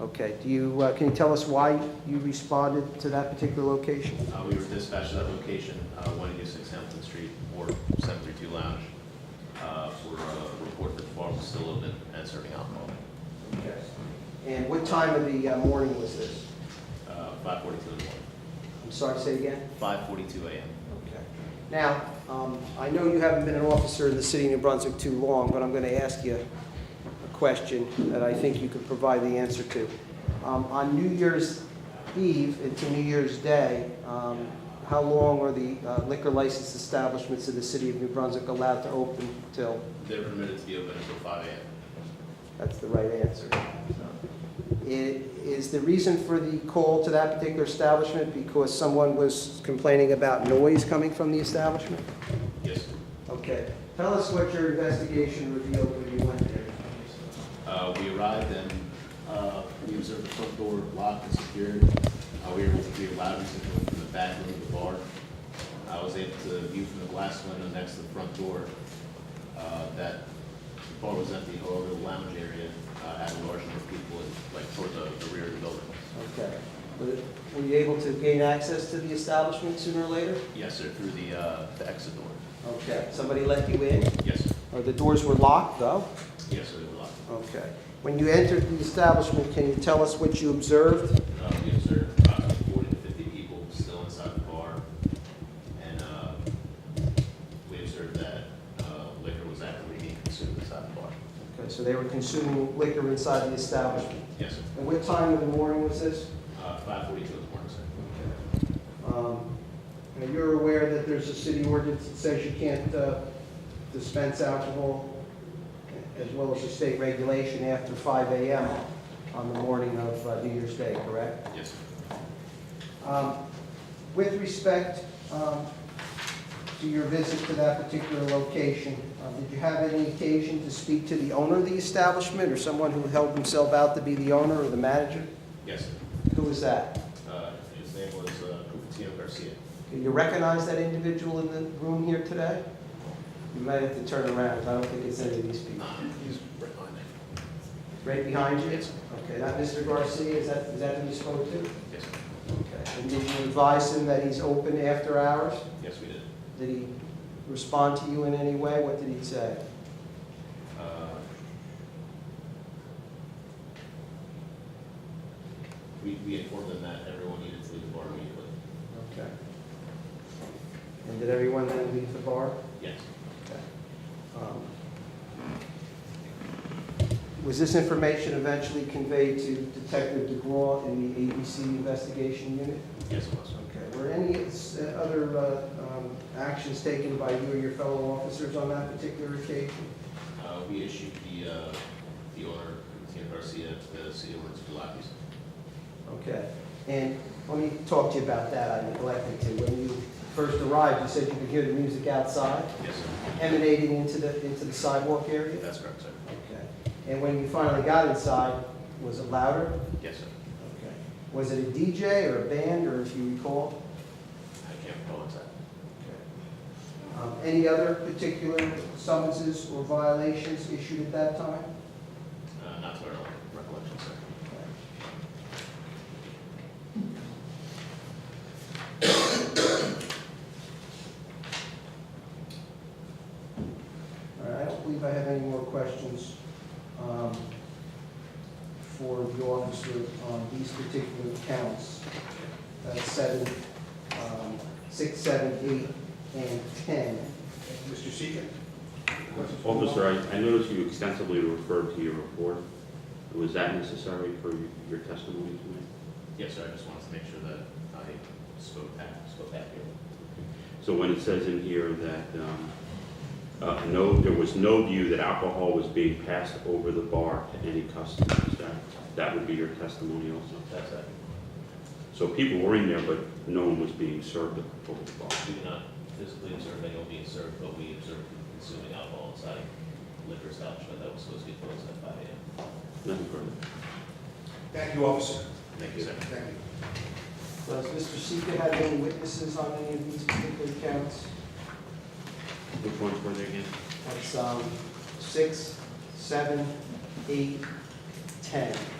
Okay, do you, uh, can you tell us why you responded to that particular location? Uh, We were dispatched to that location, uh, 186 Hampton Street, or 732 Lounge, uh, for a report that the bar was still open and serving alcohol. Okay. And what time of the uh, morning was this? Uh, 5:42 in the morning, I'm sorry, say again? 5:42 a.m. Okay. Now, um, I know you haven't been an officer in the city of New Brunswick too long, but I'm going to ask you a question that I think you could provide the answer to. Um, On New Year's Eve into New Year's Day, um, how long are the uh, liquor license establishments of the city of New Brunswick allowed to open till? They're permitted to be open until 5 a.m. That's the right answer. I- Is the reason for the call to that particular establishment because someone was complaining about noise coming from the establishment? Yes, Okay, tell us what your investigation revealed when you went there. Uh, we arrived and uh, we observed the front door locked and secured. Uh, We were able to be allowed to go into the back room of the bar. I was able to view from the glass window next to the front door uh, that the bar was empty, however, the lounge area uh, had a large number of people, in, like toward the the rear of the building. Okay, Were- were you able to gain access to the establishment sooner or later? Yes, sir, through the uh, the exit door. Okay, somebody let you in? Yes, sir. Or the doors were locked, though? yes, sir, they were locked. Okay, when you entered the establishment, can you tell us what you observed? Uh, We observed approximately 40 to 50 people still inside the bar, and uh, we observed that uh, liquor was actively being consumed inside the bar. Okay, so they were consuming liquor inside the establishment. Yes, sir. And what time in the morning was this? Uh, 5:42 in the morning, sir. Um, Now, you're aware that there's a city ordinance that says you can't uh, dispense alcohol, as well as a state regulation after 5 AM on the morning of uh, New Year's Day, correct? Yes, sir. Um, With respect um, to your visit to that particular location, uh, did you have any occasion to speak to the owner of the establishment, or someone who held himself out to be the owner or the manager? yes, sir. Who was that? Uh, His name was uh, Cupertino Garcia. Do you recognize that individual in the room here today? You might have to turn around, 'cause I don't think it's any of these people. He's right behind me. Right behind you? Yes, sir. Okay, that Mr. Garcia, is that, is that who you spoke to? Yes, sir. Okay. And did you advise him that he's open after hours? Yes, we did. Did he respond to you in any way? What did he say? Uh, We we informed them that everyone needed to leave the bar immediately. Okay. And did everyone then leave the bar? Yes, Okay. Um, Was this information eventually conveyed to Detective DeGraw in the ABC investigation unit? yes, it was. sir. Okay, were any uh, other uh, um, actions taken by you or your fellow officers on that particular occasion? Uh, we issued the, uh, the order, Tim Garcia, the city ordinance for lobbies. Okay, and let me talk to you about that, I neglected to. When you first arrived, you said you could hear the music outside Yes, sir. emanating into the, into the sidewalk area? That's correct, sir. Okay, and when you finally got inside, was it louder? Yes, sir. Okay. Was it a DJ or a band, or if you recall? I can't recall exactly. Um, Any other particular summonses or violations issued at that time? Uh, not to our recollection, sir. All right, I don't believe I have any more questions um, for the officer on these particular counts. That's seven, um, six, seven, eight, and 10. Mr. Seeger? Officer, I- I noticed you extensively referred to your report. Was that necessary for your testimony tonight? Yes, sir, I just wanted to make sure that I spoke back, spoke back here. So when it says in here that um, uh, no, there was no view that alcohol was being passed over the bar to any customers, that that would be your testimony also? That's it. So people were in there, but no one was being served over the bar. We did not physically observe anyone being served, but we observed people consuming alcohol inside liquor establishment that was supposed to be closed at five AM. Nothing further. Thank you, officer. Thank you, sir. Thank you. Does Mr. Seeker have any witnesses on any of these particular counts? Which ones were there again? That's um, six, seven, eight, ten.